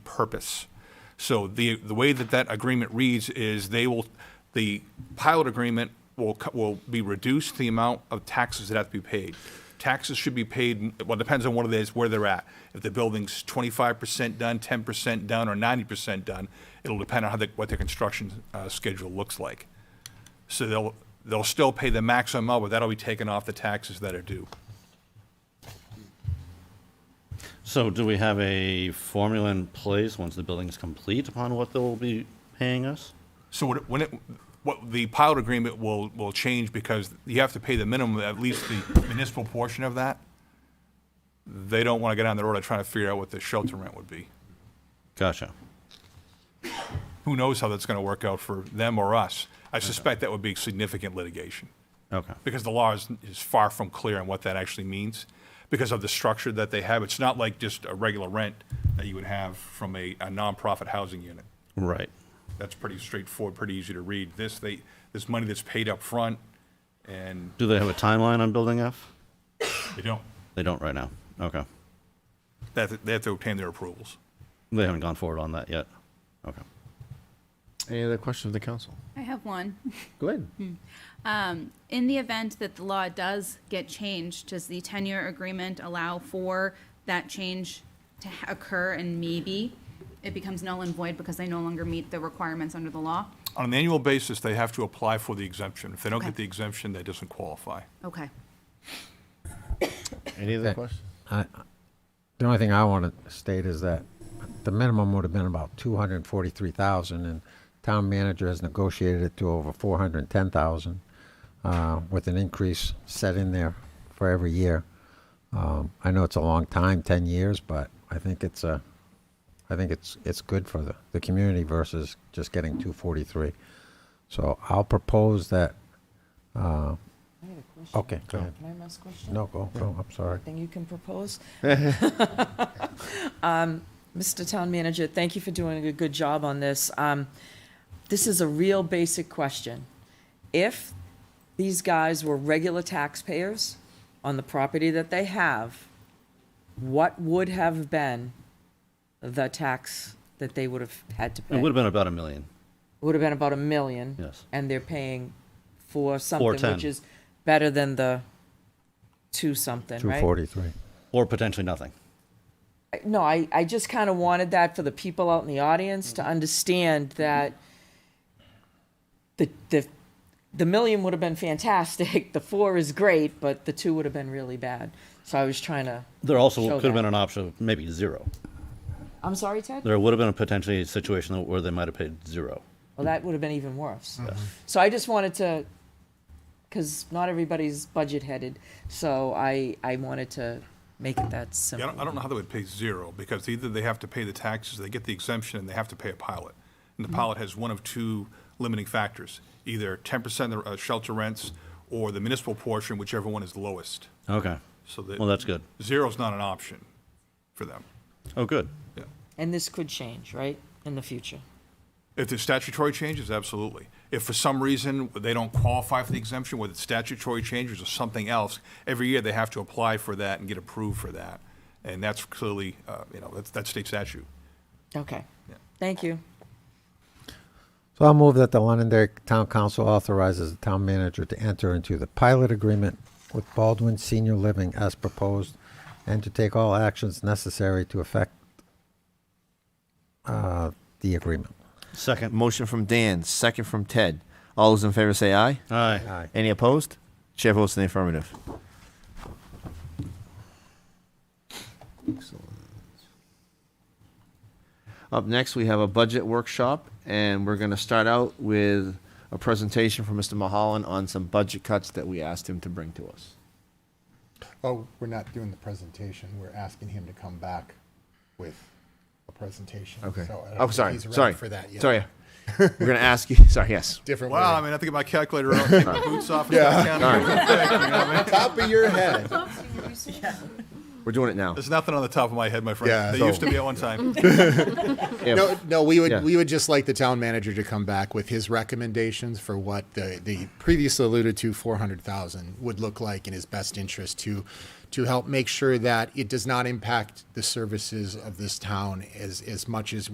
purpose. So the, the way that that agreement reads is they will, the pilot agreement will, co- will be reduced the amount of taxes that have to be paid. Taxes should be paid, well, depends on what it is, where they're at. If the building's twenty-five percent done, ten percent done, or ninety percent done, it'll depend on how the, what their construction, uh, schedule looks like. So they'll, they'll still pay the maximum amount, but that'll be taken off the taxes that are due. So do we have a formula in place once the building's complete upon what they'll be paying us? So what, it- when it, what the pilot agreement will, will change because you have to pay the minimum, at least the municipal portion of that. They don't want to get on the road and try to figure out what the shelter rent would be. Gotcha. Who knows how that's going to work out for them or us? I suspect that would be significant litigation Okay. because the law is, is far from clear on what that actually means because of the structure that they have. It's not like just a regular rent that you would have from a, a nonprofit housing unit. Right. That's pretty straightforward, pretty easy to read. This, they, this money that's paid up front and Do they have a timeline on building F? They don't. They don't right now. Okay. They have to, they have to obtain their approvals. They haven't gone forward on that yet. Okay. Any other questions of the council? I have one. Go ahead. In the event that the law does get changed, does the ten-year agreement allow for that change to ha- occur and maybe it becomes null and void because they no longer meet the requirements under the law? On an annual basis, they have to apply for the exemption. If they don't get Okay. the exemption, that doesn't qualify. Okay. Any other Okay. questions? The only thing I want to state is that the minimum would have been about two hundred and forty-three thousand, and town manager has negotiated it to over four hundred and ten thousand, uh, with an increase set in there for every year. Um, I know it's a long time, ten years, but I think it's a, I think it's, it's good for the, the community versus just getting two forty-three. So I'll propose that, I had a question. okay, go ahead. Can I ask a question? Oh, No, go, go, I'm sorry. Thing you can propose? Um, Mr. Town Manager, thank you for doing a good job on this. Um, This is a real basic question. If these guys were regular taxpayers on the property that they have, what would have been the tax that they would have had to pay? It would have been about a million. would have been about a million. Yes. And they're paying for something 410. which is better than the two something, Two right? forty-three. Or potentially nothing. I- No, I, I just kind of wanted that for the people out in the audience to understand that the, the, the million would have been fantastic. The four is great, but the two would have been really bad. So I was trying to, There also Show could have that. been an option of maybe zero. I'm sorry, Ted? There would have been a potentially situation where they might have paid zero. Well, that would have been even worse. So I just wanted to, because not everybody's budget headed, so I, I wanted to make it that Yeah, I simple. don't, I don't know how they would pay zero, because either they have to pay the taxes, they get the exemption, and they have to pay a pilot. And the pilot has one of two limiting factors, either ten percent of the, uh, shelter rents or the municipal portion, whichever one is lowest. Okay. So that- Well, that's good. Zero's not an option for them. Oh, good. Yeah. And this could change, right, in the future? If there's statutory changes, absolutely. If for some reason they don't qualify for the exemption, whether it's statutory changes or something else, every year they have to apply for that and get approved for that. And that's clearly, uh, you know, that's, that's state statute. Okay. Thank you. So I'll move that the Londonderry Town Council authorizes the town manager to enter into the pilot agreement with Baldwin Senior Living as proposed and to take all actions necessary to effect uh, the agreement. Second. Motion from Dan, second from Ted. All those in favor say aye. Aye. Aye. Any opposed? Chair votes in the affirmative. Excellent. Up next, we have a budget workshop, and we're going to start out with a presentation from Mr. Mahalan on some budget cuts that we asked him to bring to us. Oh, we're not doing the presentation. We're asking him to come back with a presentation. Okay. So I don't Oh, think sorry, he's ready sorry. For that yet. Sorry. We're going to ask you, sorry, yes. Different. Wow, I wording. mean, I think my calculator out, take my boots off and start counting. All Top of your head. We're doing it now. There's nothing on the top of my head, my Yeah, friend. There so- used to be at one time. If- No, no, we would Yeah. we would just like the town manager to come back with his recommendations for what the the previously alluded to four hundred thousand would look like in his best interest to to help make sure that it does not impact the services of this town as as much as